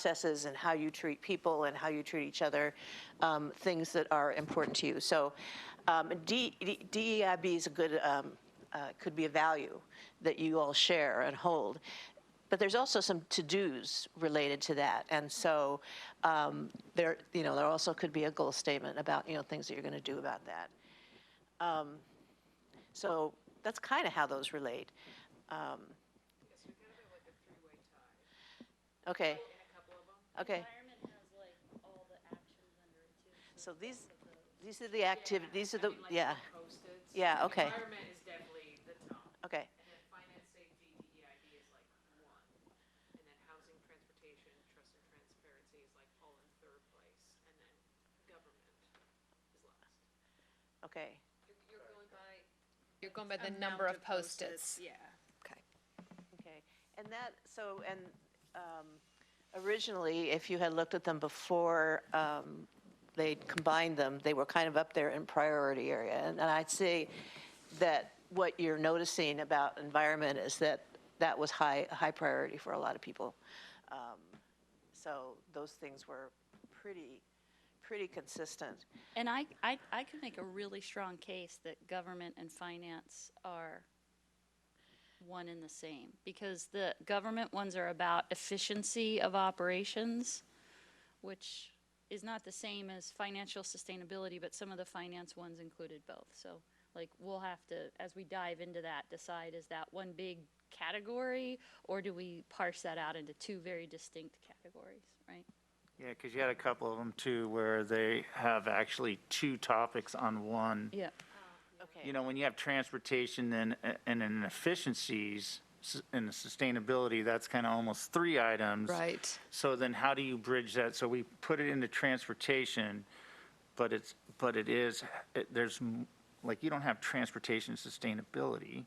processes and how you treat people and how you treat each other, um, things that are important to you. So um, D- D- DEIB is a good, um, uh, could be a value that you all share and hold. But there's also some to-dos related to that. And so um, there, you know, there also could be a goal statement about, you know, things that you're going to do about that. Um, So that's kind of how those relate. Um, Okay. Okay. Environment has like all the actions under it too. So these, these are the activities, these are I the, mean, like yeah, the post-its. Yeah, okay. Environment is definitely the top, okay, and then finance, safety, DEIB is like one, and then housing, transportation, trust and transparency is like all in third place, and then government is last. okay. You're going by. You're going by the number of post-its. Yeah. Okay, and that, so, and um, originally, if you had looked at them before um, they combined them, they were kind of up there in priority area. And and I'd say that what you're noticing about environment is that that was high, a high priority for a lot of people. Um, So those things were pretty, pretty consistent. And I, I, I could make a really strong case that government and finance are one and the same. Because the government ones are about efficiency of operations, which is not the same as financial sustainability, but some of the finance ones included both. So like, we'll have to, as we dive into that, decide is that one big category? Or do we parse that out into two very distinct categories, right? Yeah, because you had a couple of them too, where they have actually two topics on one. Yeah. Okay. You know, when you have transportation and, and inefficiencies s- and sustainability, that's kind of almost three items. Right. So then how do you bridge that? So we put it into transportation, but it's, but it is, it- there's, m- like, you don't have transportation sustainability.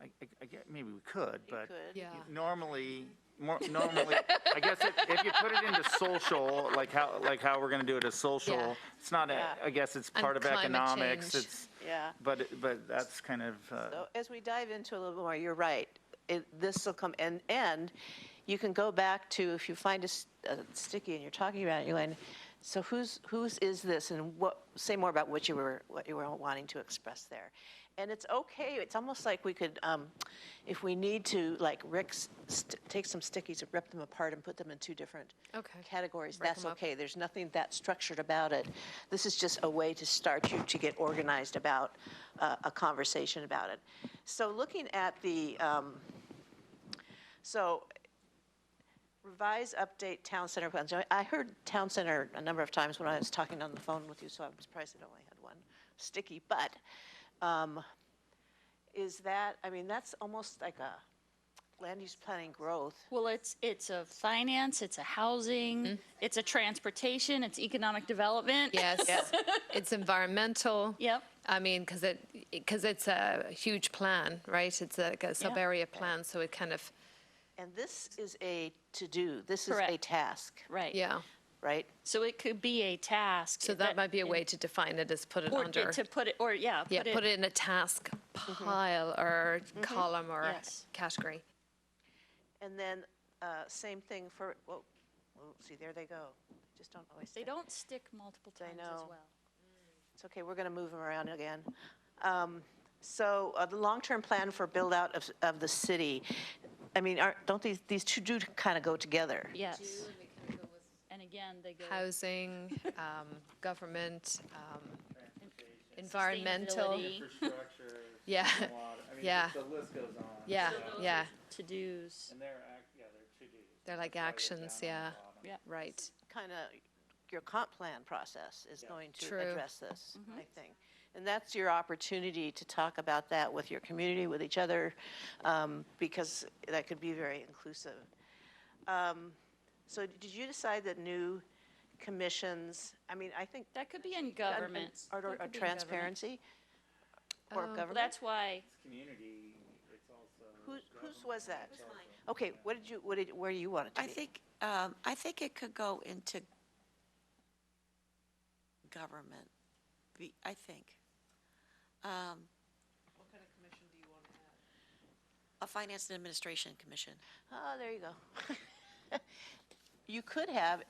I, I- I get, maybe we could, but. could. Yeah. Normally, more, normally, I guess if, if you put it into social, like how, like how we're gonna do it as Yeah. social, it's not, a- I guess it's And part of climate economics, change. it's, Yeah. but, it- but that's kind of, uh, So as we dive into it a little more, you're right. It, this will come, and, and you can go back to, if you find a, s- a sticky and you're talking about it, you're going, so whose, whose is this? And what, say more about what you were, what you were wanting to express there. And it's okay, it's almost like we could, um, if we need to, like Rick, st- take some stickies and rip them apart and put them in two different Okay. categories. Break That's 'em up. okay. There's nothing that structured about it. This is just a way to start you to get organized about uh, a conversation about it. So looking at the, um, so revise, update town center plans. I- I heard town center a number of times when I was talking on the phone with you, so I'm surprised I only had one sticky. But um, is that, I mean, that's almost like a land use planning growth. Well, it's, it's a finance, it's a Mm-hmm. housing, it's a transportation, it's economic development. Yes. It's environmental. Yep. I mean, because it, because it's a huge plan, right? It's like a sub-area plan, so it kind of, And this is a to-do, this is a Correct. task, Right. yeah. right? So it could be a task. So that might be a way to define it, is put it Or under, to put it, or, yeah. yeah, put it Mm-hmm. in a task pile or column or Yes. category. And then, uh, same thing for, whoa, whoa, see, there they go. They Just don't always They stay. don't stick multiple I times as know. well. It's okay, we're going to move them around again. Um, So uh, the long-term plan for build-out of, of the city, I mean, aren't, don't these, these two do kind of go together? Yes. And again, they go. Housing, um, government, um, environmental. Sustainability. Infrastructure. Yeah. water, I mean, Yeah. The list goes on. Yeah, so- yeah. To-dos. And they're, act- yeah, they're to-dos. They're like Write it actions, down on yeah, the bottom. Yeah. right. Kind of, your comp plan process is going to True. address this, Mm-hmm. I think. And that's your opportunity to talk about that with your community, with each other, um, because that could be very inclusive. Um, So did you decide that new commissions, I mean, I think That could be in government. Or, That could be in government. transparency? Or Um, Well, government? That's why, It's community, it's also. Whose, whose was that? Okay, what did you, what did, where do you want it to I be? think, um, I think it could go into government, be- I think. Um, What kind of commission do you want to have? A Finance and Administration Commission. Oh, there you Ah, go. you could have